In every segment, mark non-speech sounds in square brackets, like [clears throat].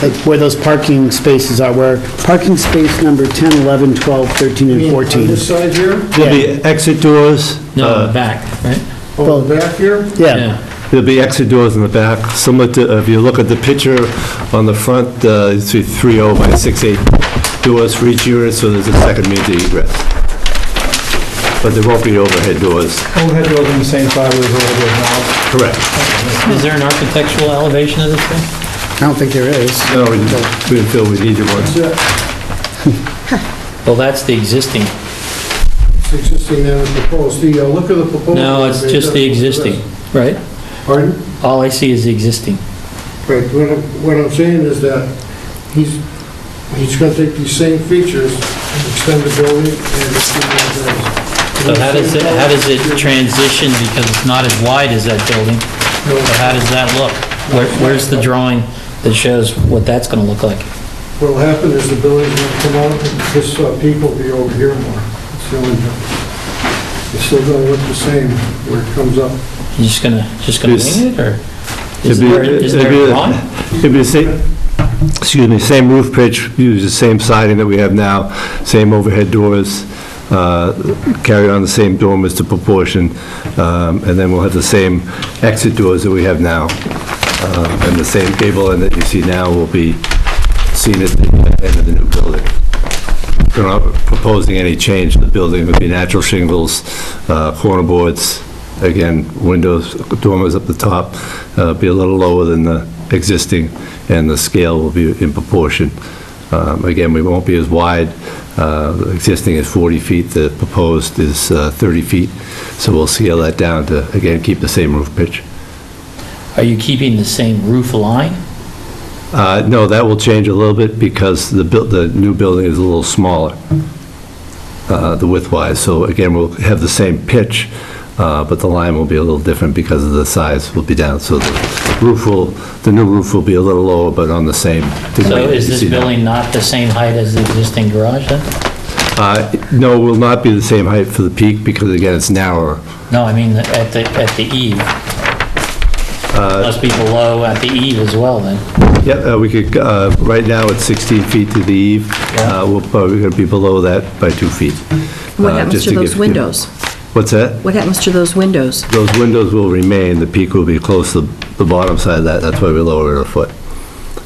like where those parking spaces are, where parking space number 10, 11, 12, 13, and 14. On this side here, There'll be exit doors. No, uh, the back, right? on the back here, Yeah, There'll be exit doors in the back, similar to, if you look at the picture on the front, uh, you see 30 by 68 doors for each unit, so there's a second means of egress. But there won't be overhead doors. overhead doors on the same side where the overhead now. Correct. Is there an architectural elevation of this thing? I don't think there is. No, we didn't we didn't feel we needed one. That's Well, that's the existing. it, It's existing and the proposed, the, uh, look at the proposed. No, it's just the existing, right? Pardon? All I see is the existing. Right, what I'm, what I'm saying is that he's, he's gonna take these same features, and extend the building, and it's So how does it, how does it transition, because it's not as wide as that building, so how does that look? Where, where's the drawing that shows what that's gonna look like? What'll happen is the building's gonna come out, and this uh, peak will be over here more. It's the only difference. It's still gonna look the same where it comes up. You just gonna, just gonna Yes. wing it, or is It'd be- there, is there it'd a be- drawing? It'd be the same, excuse me, same roof pitch, use the same siding that we have now, same overhead doors, uh, carry on the same dormers to proportion, um, and then we'll have the same exit doors that we have now. Uh, And the same gable end that you see now will be seen at the end of the new building. We're not proposing any change to the building, it would be natural shingles, uh, corner boards, again, windows, dormers up the top, uh, be a little lower than the existing, and the scale will be in proportion. Um, Again, we won't be as wide, uh, the existing is 40 feet, the proposed is uh, 30 feet, so we'll scale that down to, again, keep the same roof pitch. Are you keeping the same roof line? Uh, No, that will change a little bit because the, buil- the new building is a little smaller, uh, the width-wise. So again, we'll have the same pitch, uh, but the line will be a little different because of the size will be down. So the roof will, the new roof will be a little lower, but on the same. degree So that is you this see now. building not the same height as the existing garage then? Uh, No, it will not be the same height for the peak because again, it's narrower. No, I mean, at the, at the eve. Uh, Must be below at the eve as well, then. Yeah, uh, we could, uh, right now it's 16 feet to the eve. Yeah. Uh, We're probably going to be below that by two feet. What uh, happens just to give- those windows? What's that? What happens to those windows? Those windows will remain, the peak will be close to the bottom side of that, that's why we lowered it a foot.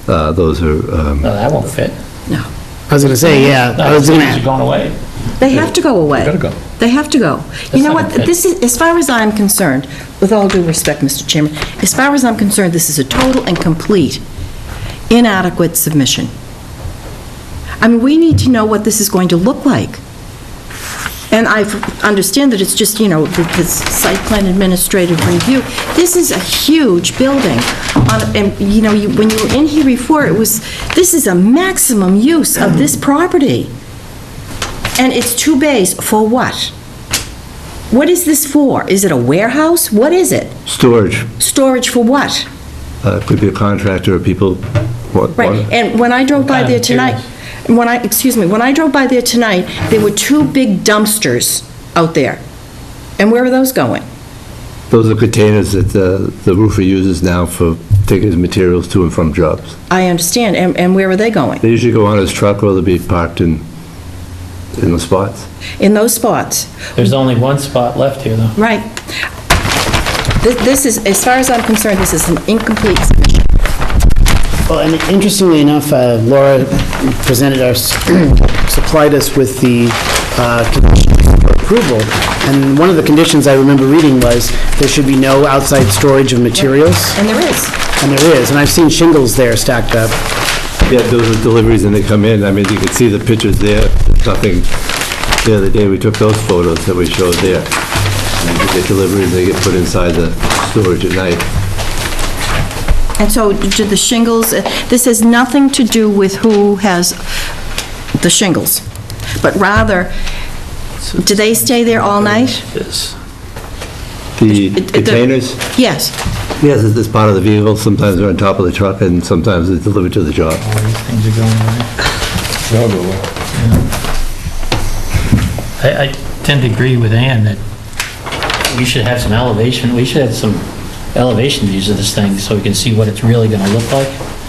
Uh, Those are, um, No, that won't fit. No. I was gonna say, yeah, I No, was it's gonna, going away. They have to go away. gotta go. They have to go. You know what, this is, as far as I'm concerned, with all due respect, Mr. Chairman, as far as I'm concerned, this is a total and complete inadequate submission. I mean, we need to know what this is going to look like. And I understand that it's just, you know, the the site plan administrative review. This is a huge building. On- And, you know, you- when you were in here before, it was, this is a maximum use of this property. And it's two bays for what? What is this for? Is it a warehouse? What is it? storage, Storage for what? uh, could be a contractor, or people want. Right, want- and when I drove by kind of there tonight, when I, excuse me, when I drove by there tonight, there were two big dumpsters out there. And where are those going? Those are containers that uh, the roofer uses now for taking his materials to and from jobs. I understand, and, and where are they going? They usually go on his truck or they'll be parked in, in the spots. In those spots, There's only one spot left here, though. right? Thi- This is, as far as I'm concerned, this is an incomplete submission. Well, and interestingly enough, uh, Laura presented us, [clears throat] supplied us with the uh, conditions for approval, and one of the conditions I remember reading was there should be no outside storage of materials, And there is. and there is, and I've seen shingles there stacked up. Yeah, those are deliveries and they come in, I mean, you can see the pictures there, There's nothing, the other day we took those photos that we showed there. And you get deliveries, they get put inside the storage at night. And so do the shingles, uh, this has nothing to do with who has the shingles, but rather, do they stay there all night? This. The It- it- the- containers? Yes. Yes, it's it's part of the vehicle, sometimes they're on top of the truck, and sometimes it's delivered to the job. All these things are going away. I, I tend to agree with Ann that we should have some elevation, we should have some elevation views of this thing so we can see what it's really gonna look like.